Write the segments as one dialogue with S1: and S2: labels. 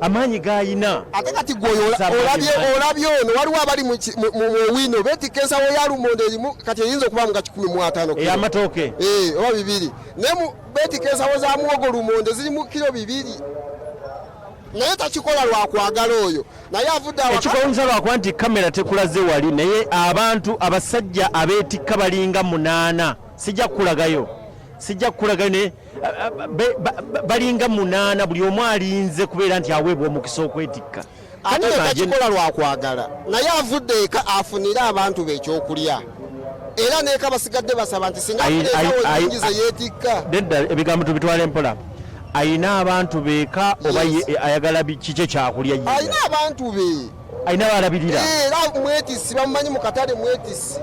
S1: amaanyi g'ayina
S2: ate kati gwe oyo ola- olabye olabye ono waliwo abali mu ki- mu- mu- mu wino beetikka ensawo ya lumonde erimu kati eyinza okuba mu ga 15 kilo.
S1: ey'amatooke
S2: Eh, oba bibiri naye mu- beetikka ensawo za muwogo lumonde zirimu kiro bibiri naye takikola lwakwagala oyo naye avudde awaka-
S1: ekikowunyisa lwakuba nti kamera tekulaze wali naye abantu abasajja abeetikka balinga munaana sijja kukulagayo sijja kukulagayo naye a- a- be- ba- ba- balinga munaana buli omu alinze kubeera nti aweebwa omukisa okwetikka
S2: ani
S1: Kata imagine-
S2: tekakikola lwakwagala naye avudde eka afunire abantu be ekyokulya era neeka basigadde basaba nti singa
S1: Ayi- ayi-
S2: afunaesawo
S1: ayi-
S2: nyingi zeyeetikka
S1: nedda ebigambo tubitwala empola ayina abantu beeka oba
S2: Yes.
S1: ye- ayagala bi- kiki ekyakulya ye
S2: alina abantu be
S1: ayina balabirira
S2: Eh, era mwetisi bamumanyi mu katale mwetisi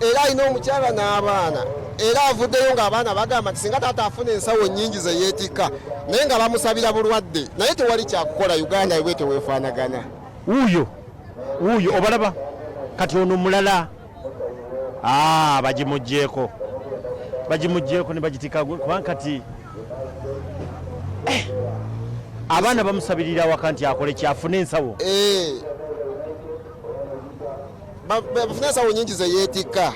S2: era alina omukyala n'abaana era avuddeyo ng'abaana bagamba nti singa taata afuna ensawo nyingi zeyeetikka naye nga bamusabira bulwadde naye tewali kyakukola uganda bwe teweefaanagana
S1: wuuyo wuuyo obalaba kati ono mulala Ah, bagimugjeeko bagimugjeeko ne bagitika gwe- kubanga kati Eh, abaana bamusabirira awaka nti akole kyafuna ensawo
S2: Eh. Ba- ba- bafuna ensawo nyingi zeyeetikka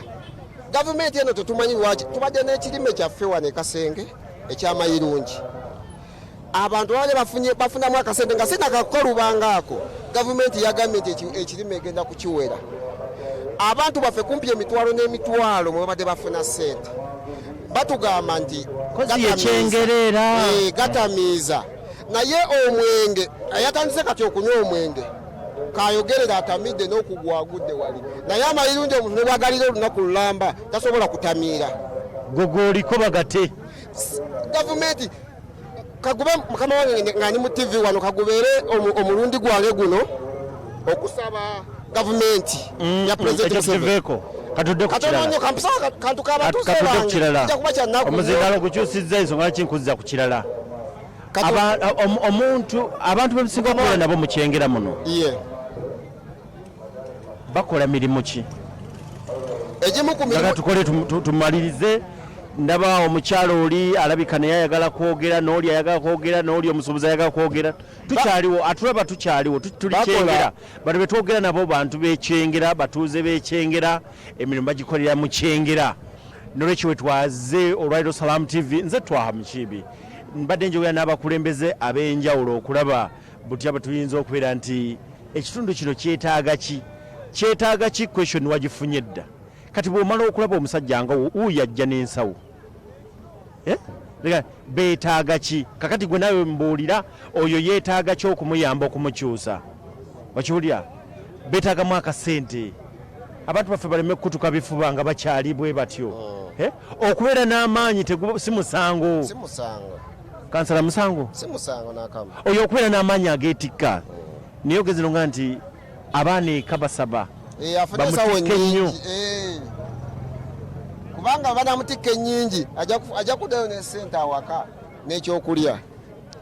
S2: gavumenti eno tetumanyi lwaki tubadde n'ekirime kyaffe wano ekasenge ekyamayirungi abantu baale bafunye- bafunamu akasente nga sinakakukalubangaako gavumenti yagambye nti eki- ekirime egenda kukiwera abantu baffe kumpi emitwalo n'emitwalo mwe babadde bafuna sente batugamba nti
S1: kozi
S2: gatamiiza.
S1: yekyengereera
S2: Eh, gatamiiza naye omwenge ayatandise kati okunywa omwenge kayogerera atamidde n'okugwagudde wali naye amayirungi omuntu ne bwagalira olunaku lulamba tasobola kutamiira
S1: gogoliko bagate
S2: gavumenti kagube mukama wange nge- nga ndi mu tivi wano kagubeere omu- omulundi gwange guno okusaba gavumenti
S1: Mm,
S2: ya pulezidenti Museveni.
S1: ekyokiveeko katudde ku
S2: katono
S1: kirala
S2: nnyo kampisa kantuka abatuuze
S1: katudde ku
S2: bange
S1: kirala
S2: kijja kuba kya nnaku nnyo.
S1: omuzindalo gukyusizza ensonga laki nkuzza ku kirala
S2: Katu-
S1: Aba- omu- omuntu abantu bemusinga okubeera nabo mukyengera muno
S2: Ye.
S1: bakola mirimu ki
S2: egimu ku mirimu
S1: aga tukole tum- tu- tumalirize ndaba omukyala oli alabika naye ayagala kwogera n'oli ayagala kwogera n'oli omusuubuzi ayagala kwogera tukyaliwo atulaba tukyaliwo tu- tuli
S2: Bakola.
S1: kyengera bano betwogera nabo bantu bekyengera batuuze bekyengera emirimu bagikolera mu kyengera nolwekyo wetwaze olwaliro salam tv nze twaha mukiibi mbadde njogera n'abakulembeze ab'enjawulo okulaba butya bwe tuyinza okubeera nti ekitundu kino kyetaaga ki kyetaaga ki question wagifunye dda kati bw'omala okulaba omusajja nga wo- wuuyo ajja n'ensawo Eh? Leka, beetaaga ki kakati gwe nawe mbuulira oyo yeetaaga ki okumuyamba okumukyusa okiwulira beetaagamu akasente abantu baffe baleme kukutuka bifuba nga bakyali bwe batyo Eh? okubeera n'amaanyi tegu- si musango
S2: si musango
S1: kansala musango
S2: si musango n'akamu
S1: oyo okubeera n'amaanyi ageetikka naye ogezirunga nti abaana eka basaba
S2: Eh, afuna ensawo
S1: Bamutikke nnyo.
S2: nyingi eh. kubanga banamutikka enyingi ajja ku- ajja kuddayo nesente awaka n'ekyokulya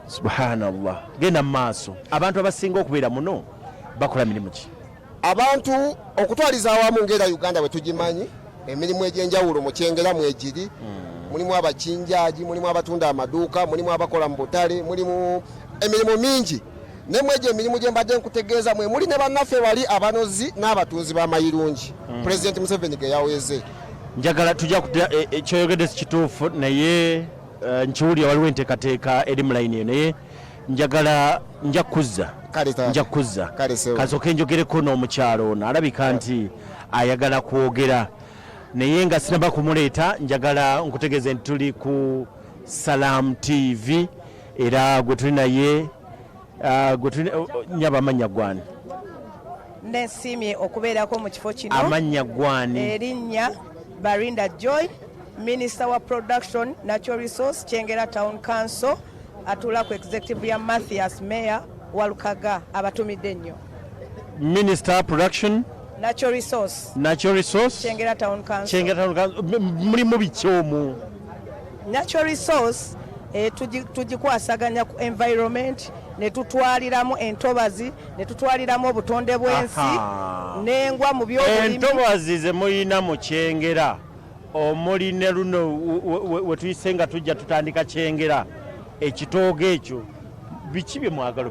S1: subhanallah genda mu maaso abantu abasinga okubeera muno bakola mirimu ki
S2: abantu okutwaliza awamu ngaera uganda bwe tugimanyi emirimu egyenjawulo mukyengeramu egiri
S1: Hmm.
S2: mulimu abakinjaaji mulimu abatunda amaduuka mulimu abakola mu butale mulimu emirimu mingi nemu egyo emirimu gye mbadde nkutegeeza mwe muli ne bannaffe bali abanozi n'abatunzi b'amayirungi
S1: Hmm.
S2: pulezidenti museveni ge yaweze
S1: njagala tujja kutya ekyoyogedde si kituufu naye eh, nkiwulira waliwo enteekateeka eri mu layini eyo naye njagala nja kuzza
S2: Kale taata.
S1: nja kuzza
S2: Kale sewa.
S1: kasooke njogereko n'omukyalo ono alabika nti ayagala kwogera naye nga sinaba kumuleeta njagala nkutegeeze nti tuli ku salam tv era gwe tuli naye ah, gwe tuli- oh, oh, nyaba amannya gwani
S3: nesiimye okubeerako mu kifo kino
S1: amannya
S3: Eh,
S1: gwani
S3: erinnya barinda joy minisita wa production natural resource kyengera town council atula ku executive ya mathias mayor walukaga abatumidde ennyo
S1: minister production
S3: natural resource
S1: natural resource
S3: kyengera town council
S1: kyengera mulimu biki omwo
S3: natural resource eh, tugi- tugikwasaganya ku environment ne tutwaliramu entobazi ne tutwaliramu obutonde bw'ensi
S1: Aha.
S3: n'engwa mu byobulimi
S1: entobazi ze mulina mu kyengera omuli ne luno we- we- wetuyise nga tujja tutandika kyengera ekitoogo ekyo biki bye mwagala